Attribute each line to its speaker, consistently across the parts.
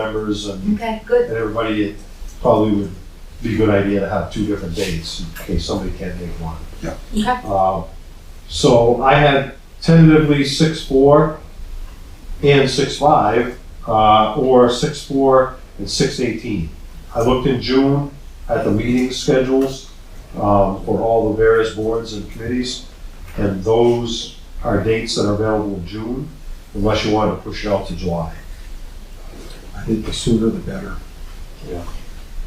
Speaker 1: members and,
Speaker 2: Okay, good.
Speaker 1: and everybody, it probably would be a good idea to have two different dates in case somebody can't make one.
Speaker 3: Yeah.
Speaker 2: Okay.
Speaker 1: Uh, So I had tentatively six four and six five, uh, or six four and six eighteen. I looked in June at the meeting schedules, um, for all the various boards and committees, and those are dates that are available in June, unless you want to push it out to July.
Speaker 3: I think the sooner the better.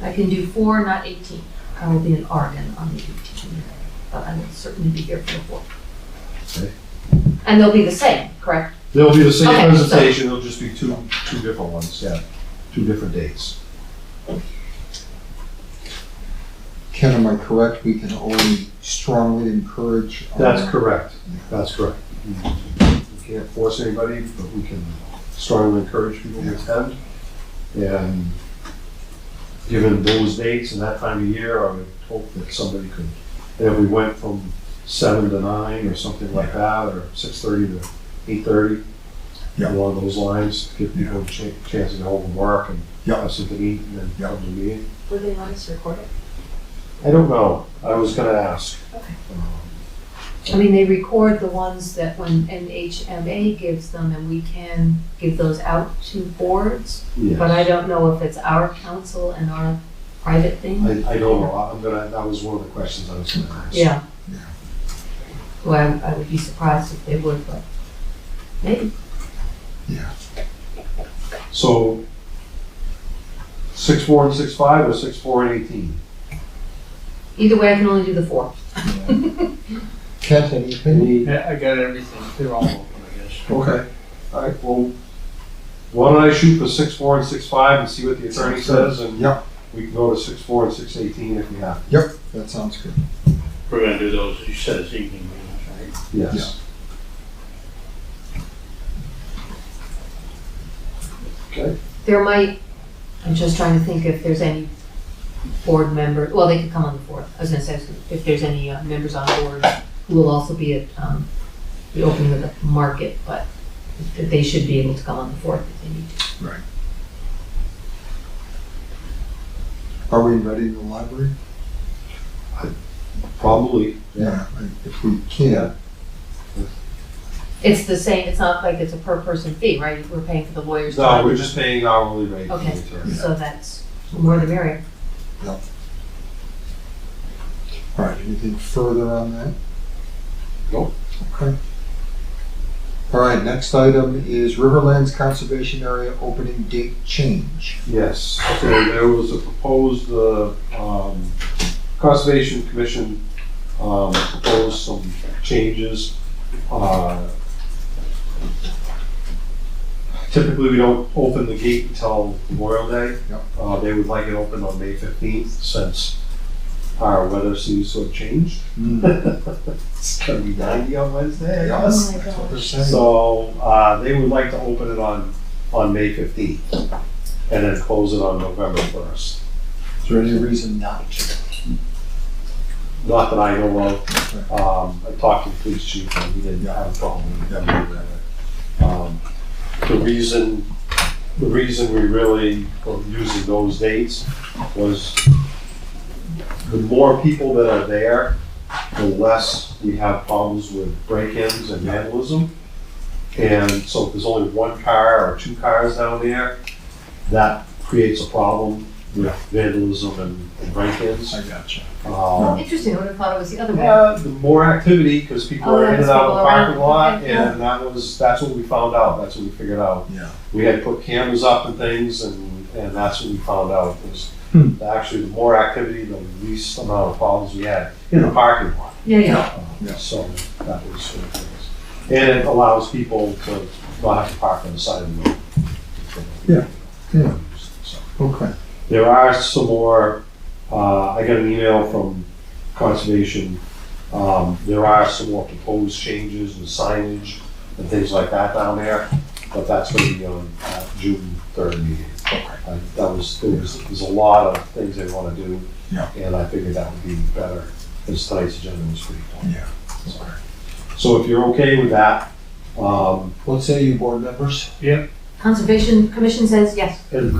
Speaker 2: I can do four, not eighteen. I will be in Oregon on the eighteenth, but I will certainly be here for the four.
Speaker 1: Okay.
Speaker 2: And they'll be the same, correct?
Speaker 1: There'll be the same
Speaker 2: Okay, so-
Speaker 1: presentation, it'll just be two, two different ones, yeah, two different dates.
Speaker 3: Ken, am I correct? We can only strongly encourage. um,
Speaker 1: That's correct, that's correct. We can't force anybody, but we can strongly encourage people to attend. And given those dates and that time of year, I would hope that somebody could, if we went from seven to nine or something like that, or six thirty to eight thirty,
Speaker 3: Yeah.
Speaker 1: along those lines, give people a cha- chance to go home and work and
Speaker 3: Yeah.
Speaker 1: have something to eat and then
Speaker 3: Yeah.
Speaker 1: come to the meeting.
Speaker 2: Will they want us to record it?
Speaker 1: I don't know. I was gonna ask.
Speaker 2: Okay.
Speaker 1: Um,
Speaker 2: I mean, they record the ones that when NHMA gives them and we can give those out to boards, but I don't know if it's our council and our private thing.
Speaker 1: I, I don't know. I'm gonna, that was one of the questions I was gonna ask.
Speaker 2: Yeah.
Speaker 3: Yeah.
Speaker 2: Well, I would be surprised if they would, but maybe.
Speaker 1: So, six, four and six, five, or six, four and eighteen?
Speaker 2: Either way, I can only do the four.
Speaker 3: Kent, any opinion?
Speaker 1: Any-
Speaker 4: Yeah, I got everything. They're all open, I guess.
Speaker 1: Okay. All right, well, why don't I shoot for six, four and six, five and see what the attorney says and
Speaker 3: Yep.
Speaker 1: we can go to six, four and six, eighteen if we have. to.
Speaker 3: Yep, that sounds good.
Speaker 4: We're gonna do those, you said it's evening meetings, right?
Speaker 1: Yes. Okay,
Speaker 2: There might, I'm just trying to think if there's any board member, well, they could come on the fourth. I was gonna say, if there's any uh, members on board who will also be at, um, the opening of the market, but that they should be able to come on the fourth if they need to.
Speaker 3: Are we ready in the library?
Speaker 1: probably.
Speaker 3: I- If we can,
Speaker 2: It's the same, it's not like it's a per person fee, right? We're paying for the lawyer's
Speaker 1: No,
Speaker 2: time.
Speaker 1: we're just paying hourly rate. for the
Speaker 2: Okay.
Speaker 1: attorney.
Speaker 2: So that's more the merrier.
Speaker 3: all right, anything further on that?
Speaker 1: Nope.
Speaker 3: Okay. All right, next item is Riverlands Conservation Area opening date change.
Speaker 1: Yes, so there was a proposed, uh, um, Conservation Commission, um, proposed some changes. Uh, Typically, we don't open the gate until Memorial Day.
Speaker 3: Yep.
Speaker 1: Uh, they would like it open on May fifteenth since our weather seems to have changed. It's gonna be ninety on Wednesday, I
Speaker 3: Yeah.
Speaker 1: guess.
Speaker 2: my
Speaker 3: That's what they're saying.
Speaker 1: So, uh, they would like to open it on, on May fifteenth, and then close it on November first.
Speaker 3: Is there any reason not to?
Speaker 1: Not that I know of, um, I talked to the police chief, and he didn't have a problem with them doing that. Um, The reason, the reason we really were using those dates was the more people that are there, the less we have problems with break-ins and vandalism. And so if there's only one car or two cars down there, that creates a problem with vandalism and- and break-ins.
Speaker 3: I gotcha.
Speaker 1: Um,
Speaker 2: Interesting, I would have thought it was the other way.
Speaker 1: yeah, the more activity, because people
Speaker 2: Oh,
Speaker 1: are in
Speaker 2: that's
Speaker 1: and out of the
Speaker 2: people around,
Speaker 1: parking lot,
Speaker 2: okay, yeah.
Speaker 1: and that was, that's what we found out, that's what we figured out.
Speaker 3: Yeah.
Speaker 1: We had put cameras up and things, and, and that's what we found out, was
Speaker 3: Hmm.
Speaker 1: actually the more activity, the least amount of problems we had in the parking lot.
Speaker 2: Yeah, yeah.
Speaker 3: Yeah.
Speaker 1: So that was sort of things. And it allows people to not have to park on the side of the road.
Speaker 3: Yeah,
Speaker 1: Hmm.
Speaker 3: yeah.
Speaker 1: So.
Speaker 3: Okay.
Speaker 1: There are some more, uh, I got an email from Conservation. Um, there are some more proposed changes and signage and things like that down there, but that's gonna be on, uh, June third meeting. Uh, That was, there was, there's a lot of things they wanna do.
Speaker 3: Yeah.
Speaker 1: And I figured that would be better, because tonight's agenda was pretty long.
Speaker 3: Yeah.
Speaker 1: So if you're okay with that, um,
Speaker 3: What say you, board members?
Speaker 4: Yeah.
Speaker 2: Conservation Commission says yes.
Speaker 1: And